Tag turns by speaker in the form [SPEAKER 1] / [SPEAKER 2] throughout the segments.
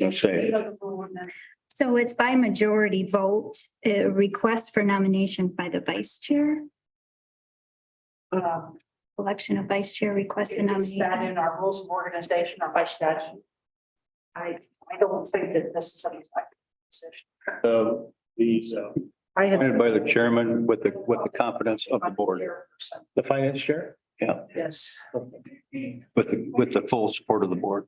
[SPEAKER 1] gonna say.
[SPEAKER 2] So it's by majority vote, a request for nomination by the vice chair,
[SPEAKER 3] Um,
[SPEAKER 2] election of vice chair, request a
[SPEAKER 3] Is that
[SPEAKER 2] nomination.
[SPEAKER 3] in our rules of organization or by statute? I, I don't think that this is something like. position.
[SPEAKER 1] So these, uh,
[SPEAKER 3] I had.
[SPEAKER 1] appointed by the chairman with the, with the confidence of the board. The finance chair? Yeah,
[SPEAKER 3] Yes.
[SPEAKER 1] with the, with the full support of the board,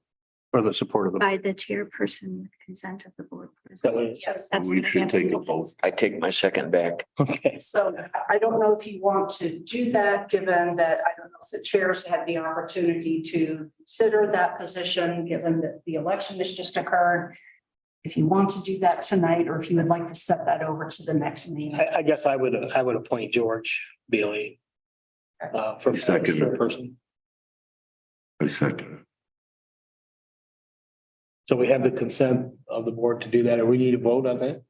[SPEAKER 1] or the support of the.
[SPEAKER 2] By the chairperson, with consent of the board.
[SPEAKER 1] That was-
[SPEAKER 3] Yes.
[SPEAKER 2] That's
[SPEAKER 4] We
[SPEAKER 2] what I
[SPEAKER 4] should
[SPEAKER 2] have.
[SPEAKER 4] take a vote. I take my second back.
[SPEAKER 1] Okay.
[SPEAKER 3] So I don't know if you want to do that, given that I don't know if the chairs had the opportunity to consider that position, given that the election has just occurred. If you want to do that tonight, or if you would like to set that over to the next meeting.
[SPEAKER 5] I, I guess I would, I would appoint George Bailey. Uh, for
[SPEAKER 6] Second.
[SPEAKER 5] for person.
[SPEAKER 6] I second it.
[SPEAKER 5] So we have the consent of the board to do that. Or we need a vote on that?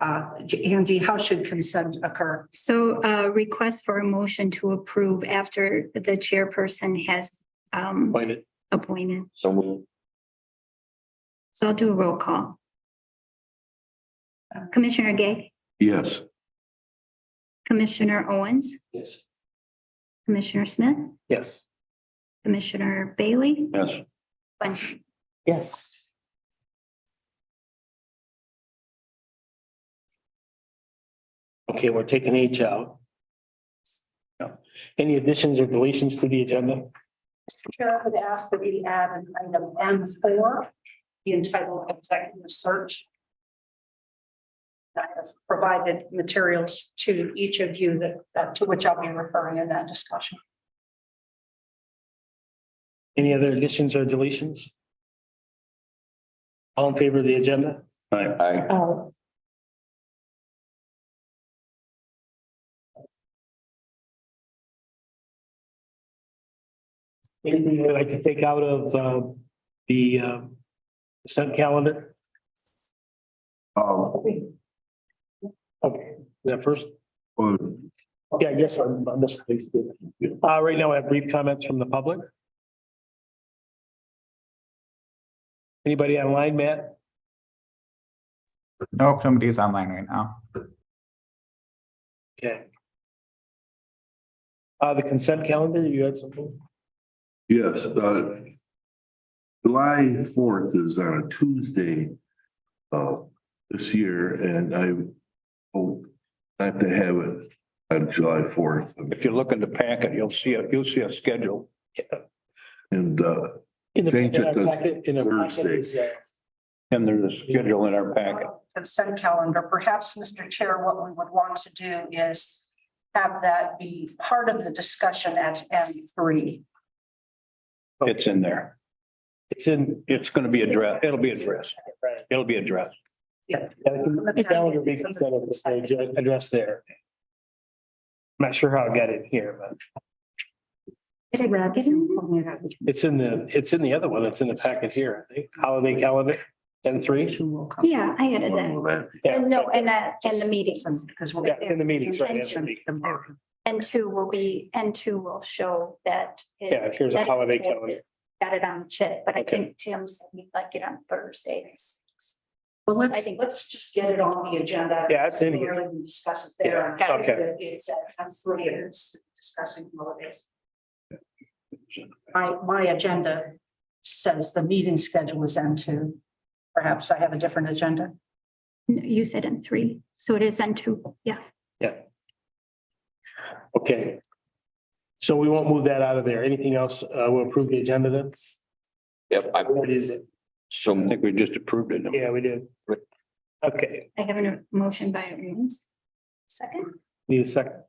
[SPEAKER 3] Uh, Angie, how should consent occur?
[SPEAKER 2] So uh request for a motion to approve after the chairperson has um
[SPEAKER 5] Appoint it.
[SPEAKER 2] appointed.
[SPEAKER 4] So move.
[SPEAKER 2] So I'll do a roll call. Commissioner Gay,
[SPEAKER 6] Yes,
[SPEAKER 2] Commissioner Owens,
[SPEAKER 5] Yes.
[SPEAKER 2] Commissioner Smith,
[SPEAKER 5] Yes.
[SPEAKER 2] Commissioner Bailey,
[SPEAKER 1] Yes.
[SPEAKER 2] Bunting.
[SPEAKER 3] Yes.
[SPEAKER 5] Okay, we're taking H out. No. Any additions or deletions to the agenda?
[SPEAKER 3] Mr. Chair, I would ask that we add an item M four, the entitled executive search. I have provided materials to each of you that, that- to which I'll be referring in that discussion.
[SPEAKER 5] Any other additions or deletions? All in favor of the agenda?
[SPEAKER 1] Aye.
[SPEAKER 4] I
[SPEAKER 3] Oh.
[SPEAKER 5] Anything you'd like to take out of, uh, the, uh, consent calendar?
[SPEAKER 6] um,
[SPEAKER 5] Okay, that first?
[SPEAKER 6] well,
[SPEAKER 5] Yeah, I guess I'm, I'm just. Uh, right now, I have brief comments from the public. Anybody online, Matt?
[SPEAKER 7] Nope, nobody's online right now.
[SPEAKER 5] Okay. Uh, the consent calendar, you had something?
[SPEAKER 6] yes, uh. July fourth is on a Tuesday. Uh, this year and I hope not to have it on July fourth.
[SPEAKER 1] If you look in the packet, you'll see, a you'll see a schedule.
[SPEAKER 6] And, uh,
[SPEAKER 5] In the
[SPEAKER 6] Change it to
[SPEAKER 5] packet, in the packet is, uh,
[SPEAKER 1] And there's a schedule in our packet.
[SPEAKER 3] Consent calendar, perhaps, Mr. Chair, what we would want to do is have that be part of the discussion at M three.
[SPEAKER 1] It's in there.
[SPEAKER 5] It's in.
[SPEAKER 1] It's gonna be addressed. It'll be addressed.
[SPEAKER 5] Right.
[SPEAKER 1] It'll be addressed.
[SPEAKER 5] Yeah, uh, the con- Calendar being set up, it's a- addressed there. I'm Not sure how I got it here, but
[SPEAKER 2] Did I grab it?
[SPEAKER 5] it's in the, it's in the other one. It's in the packet here, I think. Holiday calendar, N three.
[SPEAKER 2] Yeah, I added that.
[SPEAKER 6] well, that,
[SPEAKER 2] And no, and that, and the meetings.
[SPEAKER 3] Because we'll.
[SPEAKER 5] Yeah, in the meetings, right, that's the meeting.
[SPEAKER 2] And two will be, and two will show that. it-
[SPEAKER 5] Yeah, here's a holiday calendar.
[SPEAKER 2] Got it on fit, but I
[SPEAKER 5] Okay.
[SPEAKER 2] think Tim said he'd like it on Thursdays.
[SPEAKER 3] Well,
[SPEAKER 2] I
[SPEAKER 3] let's,
[SPEAKER 2] think-
[SPEAKER 3] let's just get it on the agenda.
[SPEAKER 5] Yeah, it's in here.
[SPEAKER 3] Really, we Discuss it there.
[SPEAKER 2] Yeah,
[SPEAKER 5] okay.
[SPEAKER 3] It's at, I'm three, it's discussing holidays. My, my agenda says the meeting schedule is M two. Perhaps I have a different agenda.
[SPEAKER 2] No, You said on three, so it is on two, yeah.
[SPEAKER 5] Okay. So we won't move that out of there. Anything else? Uh, we'll approve the agenda then?
[SPEAKER 4] Yep, I,
[SPEAKER 5] What is it?
[SPEAKER 4] so
[SPEAKER 1] I
[SPEAKER 4] moved.
[SPEAKER 1] think we just approved it.
[SPEAKER 5] Yeah, we did. Okay,
[SPEAKER 2] I have a motion by Owens. Second,
[SPEAKER 5] need a second.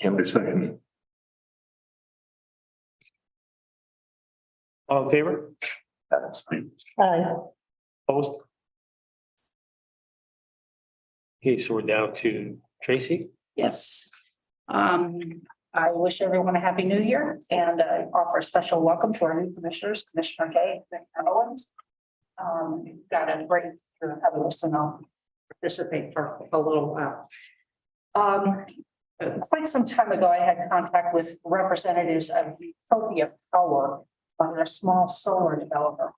[SPEAKER 4] Tim,
[SPEAKER 6] I second it.
[SPEAKER 5] All in favor? Opposed? Okay, so we're down to Tracy.
[SPEAKER 3] Yes. Um, I wish everyone a happy new year and I offer a special welcome to our new commissioners, Commissioner Gay, Commissioner Owens. Um, got a break through have a listen, I'll participate for a little while. Um, quite some time ago, I had contact with representatives of Utopia Power. on a small solar developer.